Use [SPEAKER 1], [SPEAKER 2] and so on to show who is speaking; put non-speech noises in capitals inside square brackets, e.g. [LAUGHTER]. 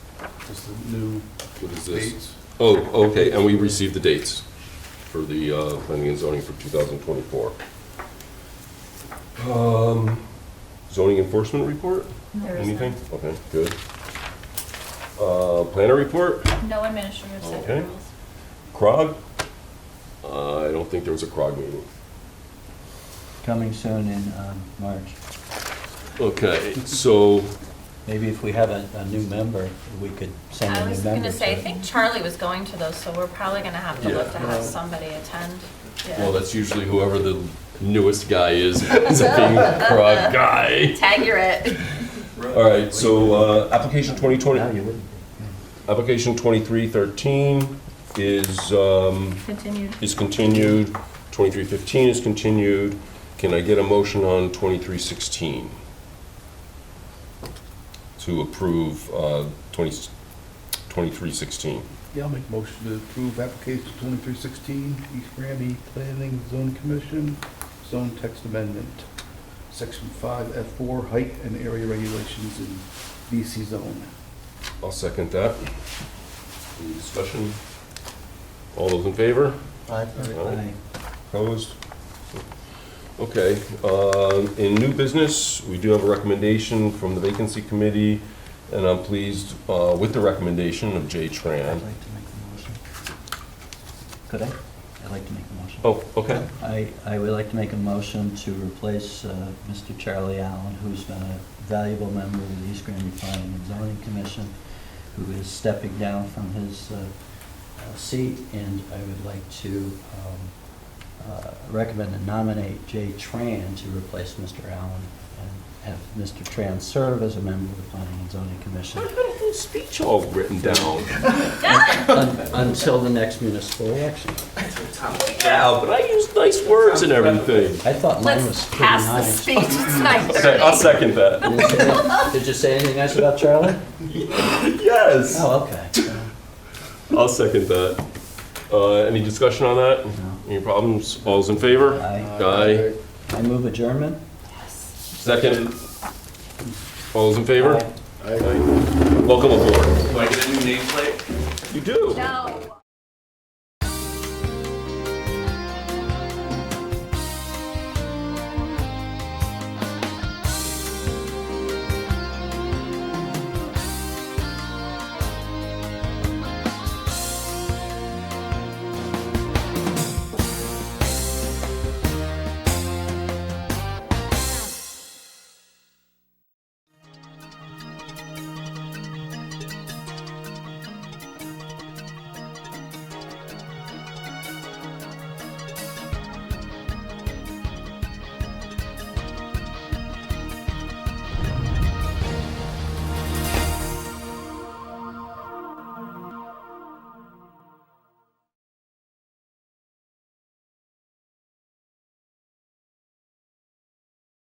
[SPEAKER 1] just the new
[SPEAKER 2] What is this?
[SPEAKER 1] dates.
[SPEAKER 2] Oh, okay, and we received the dates for the uh, planning and zoning for 2024. Um, Zoning enforcement report?
[SPEAKER 3] There is
[SPEAKER 2] Anything? Okay, good. Uh, Planner report?
[SPEAKER 3] none. No administrative set
[SPEAKER 2] Okay.
[SPEAKER 3] rules.
[SPEAKER 2] CROG? Uh, I don't think there was a CROG meeting.
[SPEAKER 4] Coming soon in um, March.
[SPEAKER 2] Okay, so,
[SPEAKER 4] Maybe if we have a, a new member, we could send
[SPEAKER 3] I
[SPEAKER 4] a new member.
[SPEAKER 3] was gonna say, I
[SPEAKER 4] to-
[SPEAKER 3] think Charlie was going to those, so we're probably gonna have to look
[SPEAKER 2] Yeah.
[SPEAKER 3] to have somebody attend. Yeah.
[SPEAKER 2] well, that's usually whoever the newest guy is, is a being CROG guy.
[SPEAKER 3] Tag your it.
[SPEAKER 2] All right, so uh, application 2020.
[SPEAKER 4] No, you wouldn't.
[SPEAKER 2] Application 2313 is, um,
[SPEAKER 3] Continued.
[SPEAKER 2] is continued, 2315 is continued. Can I get a motion on 2316? To approve uh, 20 2316.
[SPEAKER 1] Yeah, I'll make motion to approve application twenty-three sixteen, East Granby Planning Zone Commission, zone text amendment, section five F four, height and area regulations in BC zone.
[SPEAKER 2] I'll second that. Any discussion? All those in favor?
[SPEAKER 4] Aye.
[SPEAKER 2] Opposed? Okay, um, in new business, we do have a recommendation from the vacancy committee, and I'm pleased uh, with the recommendation of Jay
[SPEAKER 4] I'd like
[SPEAKER 2] Tran.
[SPEAKER 4] to make the motion. Could I? I'd like to make a motion.
[SPEAKER 2] Oh, okay.
[SPEAKER 4] I, I would like to make a motion to replace uh, Mr. Charlie Allen, who's been a valuable member of the East Granby Planning and Zoning Commission, who is stepping down from his uh, uh, seat, and I would like to um, uh, recommend and nominate Jay Tran to replace Mr. Allen and have Mr. Tran serve as a member of the Planning and Zoning
[SPEAKER 3] [LAUGHS]
[SPEAKER 4] Commission
[SPEAKER 2] Speech all written down.
[SPEAKER 4] un- until the next municipal election.
[SPEAKER 2] Yeah, but I used nice words and everything.
[SPEAKER 4] I thought mine was
[SPEAKER 3] Let's
[SPEAKER 4] pretty
[SPEAKER 3] pass the
[SPEAKER 4] nice.
[SPEAKER 3] speech.
[SPEAKER 4] [LAUGHS]
[SPEAKER 3] It's nine
[SPEAKER 2] Okay, I'll
[SPEAKER 3] thirty.
[SPEAKER 2] second that.
[SPEAKER 4] Did you say- did you say anything nice about Charlie?
[SPEAKER 2] [LAUGHS] Yes,
[SPEAKER 4] Oh, okay.
[SPEAKER 2] I'll second that. Uh, Any discussion on that? Any problems? All's in favor?
[SPEAKER 4] I,
[SPEAKER 2] Aye.
[SPEAKER 4] I move adjournment.
[SPEAKER 2] Second. All's in favor? Aye. Welcome aboard.
[SPEAKER 5] Do I get a new nameplate?
[SPEAKER 2] You do.
[SPEAKER 3] No.